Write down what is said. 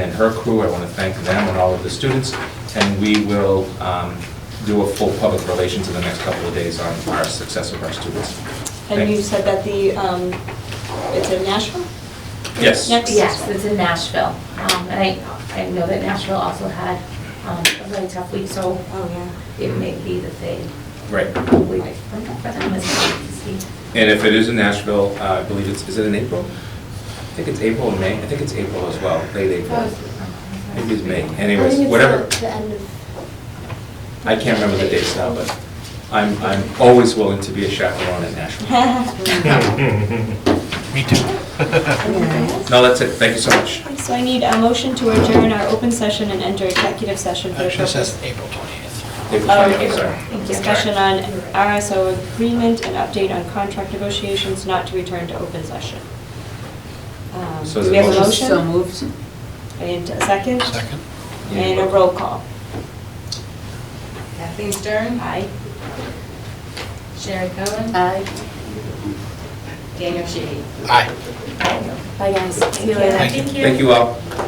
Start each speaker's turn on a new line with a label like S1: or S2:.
S1: and her crew. I want to thank them and all of the students, and we will um, do a full public relations in the next couple of days on our success of our students.
S2: And you
S1: Thanks.
S2: said that the, um, it's in Nashville?
S1: Yes.
S2: Next.
S3: Yes, it's in Nashville. Um, And I, I know that Nashville also had um, a really tough week, so
S2: Oh,
S3: it may be that they,
S1: Right.
S3: we, for them, it's nice to see.
S1: And if it is in Nashville, uh, I believe it's, is it in April? I think it's April or May. I think it's April as well, late April. Maybe it's Oh, May. Anyways, whatever. I can't remember the dates now, but I'm, I'm always willing to be a chaperone in Nashville.
S2: yeah.
S4: Me too.
S2: Anything else?
S1: No, that's it. Thank you so much.
S2: So I need a motion to adjourn our open session and enter executive session for the
S4: Actually, it
S2: purpose.
S4: says April 20th.
S1: April
S2: Oh,
S1: 20th,
S2: okay.
S1: sorry.
S2: Discussion on RSO agreement and update on contract negotiations not to return to open session. Um,
S1: So
S2: Do
S1: the
S2: we have a
S1: motion-
S2: motion?
S5: So moved.
S2: And a second?
S4: Second?
S2: And a roll call.
S6: Kathleen Stern.
S2: Aye.
S6: Sharon Cohen.
S5: Aye.
S6: Daniel Sheehy.
S4: Aye.
S2: Bye, guys. See you later.
S4: Thank you.
S1: Thank you all.